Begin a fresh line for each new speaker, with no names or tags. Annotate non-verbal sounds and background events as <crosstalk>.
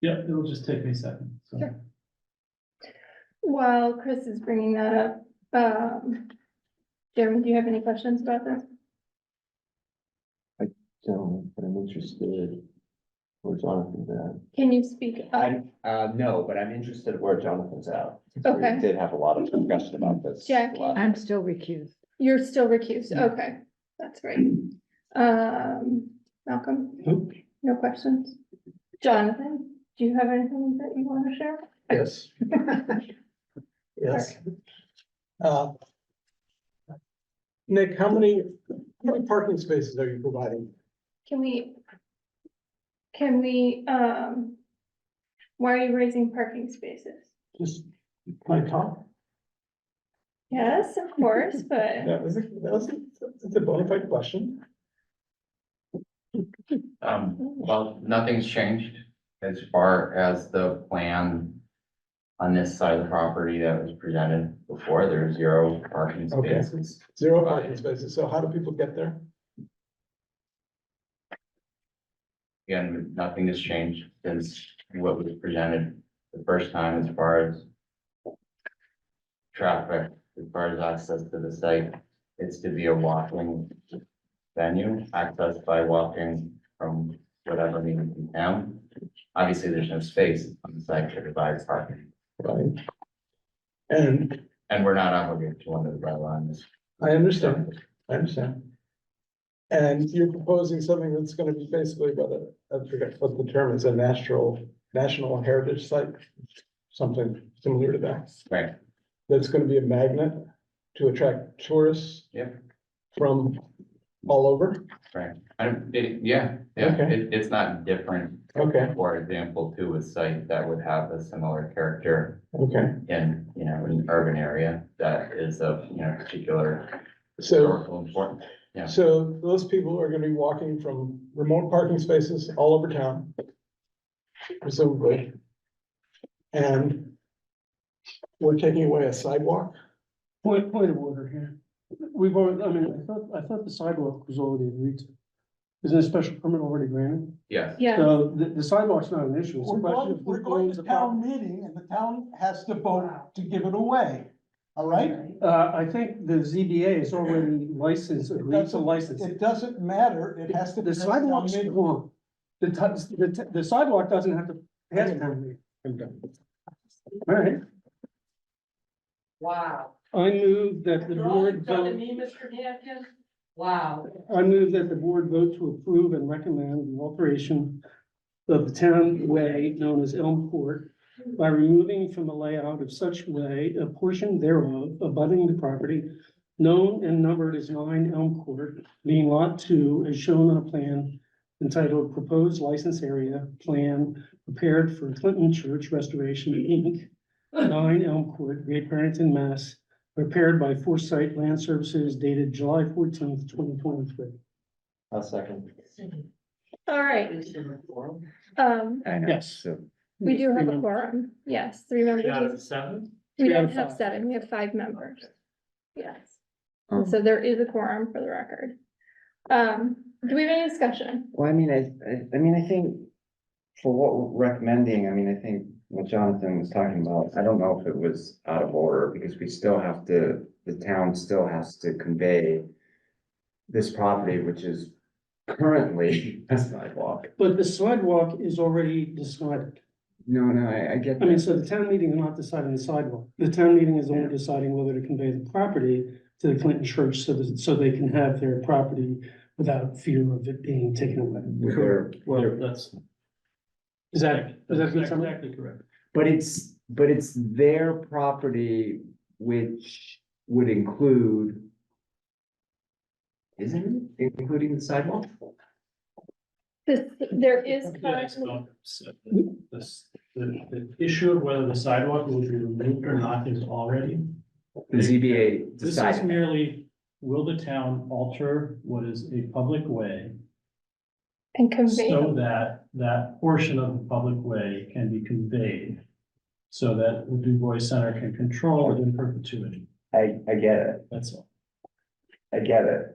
Yeah, it'll just take me a second, so.
Sure. While Chris is bringing that up, um, Jeremy, do you have any questions about this?
So, but I'm interested. Where Jonathan's at.
Can you speak up?
I'm, uh, no, but I'm interested where Jonathan's at. since we
Okay.
Did have a lot of discussion about this.
Jack,
last-
I'm still recused.
You're still recused,
Yeah.
okay, that's right. Um, Malcolm,
Nope.
no questions? Jonathan, do you have anything that you want to share?
Yes. Yes. Uh, Nick, how many, how many parking spaces are you providing?
Can we? Can we, um, why are you raising parking spaces?
Just, can I talk?
Yes, of course,
<laughs>
but
That was, a- that was, a- that's a bona fide question.
Um, well, nothing's changed as far as the plan. On this side of the property that was presented before, there's zero parking
Okay.
spaces.
Zero parking spaces. So how do people get there?
Again, nothing has changed since what was presented the first time as far as. Traffic, as far as access to the site, it's to be a walking venue, accessed by walking from whatever means in town. Obviously, there's no space on the site to provide parking.
Right. And
And we're not obligated to under the bylaw on this.
I understand, I understand. And you're proposing something that's gonna be basically what a, I forget what the term is, a natural, national heritage site? Something similar to that,
Right,
that's gonna be a magnet to attract tourists
Yep.
from all over,
right. I don't, it, yeah, yeah,
Okay.
it, it's not different.
okay,
For example, to a site that would have a similar character
okay,
in, you know, an urban area that is of, you know, particular
so.
historical importance. yeah.
So those people are gonna be walking from remote parking spaces all over town. Presumably. And. We're taking away a sidewalk,
Point, point of order here. We've already, I mean, I thought, I thought the sidewalk was already agreed to. Isn't a special permit already granted?
Yes,
yeah,
So the, the sidewalk's not an issue. It's a
We're
question of
going,
who
we're going
owns
to
the property.
town meeting and the town has to vote to give it away, all right?
Uh, I think the ZBA is already licensed, agreed to license. it.
It doesn't matter, it has to.
The
pass town
sidewalk's
meeting.
wrong. The, ti- the, ti- the sidewalk doesn't have to pass town meeting. I'm done. All right.
Wow.
I move that the
You're
board
all done to
vote,
me, Mr. Hampton? Wow.
I move that the board vote to approve and recommend the alteration of the town way known as Elm Court by removing from the layout of such way a portion thereof abutting the property known and numbered as nine Elm Court, being lot two as shown on a plan entitled Proposed License Area Plan Prepared for Clinton Church Restoration, Inc., nine Elm Court, Great Barrington, Mass., prepared by Foresight Land Services dated July fourteenth, twenty twenty-three.
A second.
all right, um,
I know,
Yes.
so-
we do have a
Remember-
quorum, yes, three members.
Three out of seven?
We
Three out
don't
of
have
five.
seven, we have five members. Yes.
Um.
So there is a quorum for the record. Um, do we have any discussion?
Well, I mean, I, I, I mean, I think for what we're recommending, I mean, I think what Jonathan was talking about, I don't know if it was out of order because we still have to, the town still has to convey this property, which is currently <laughs> a sidewalk.
But the sidewalk is already decided.
No, no, I, I get
I mean,
that.
so the town meeting is not deciding the sidewalk. The town meeting is only deciding whether to convey the property to the Clinton Church so that, so they can have their property without fear of it being taken away.
With their-
Well, that's,
Is that, is that
that's
good summary?
exactly correct.
But it's, but it's their property, which would include. Isn't it including the sidewalk?
This, there is
Yeah, it's
currently-
not- so The, this- the- the issue of whether the sidewalk will be removed or not is already.
The ZBA
This
decided.
is merely, will the town alter what is a public way
and convey,
so that that portion of the public way can be conveyed? So that the Du Bois Center can control it in perpetuity,
I, I get it,
that's all.
I get it.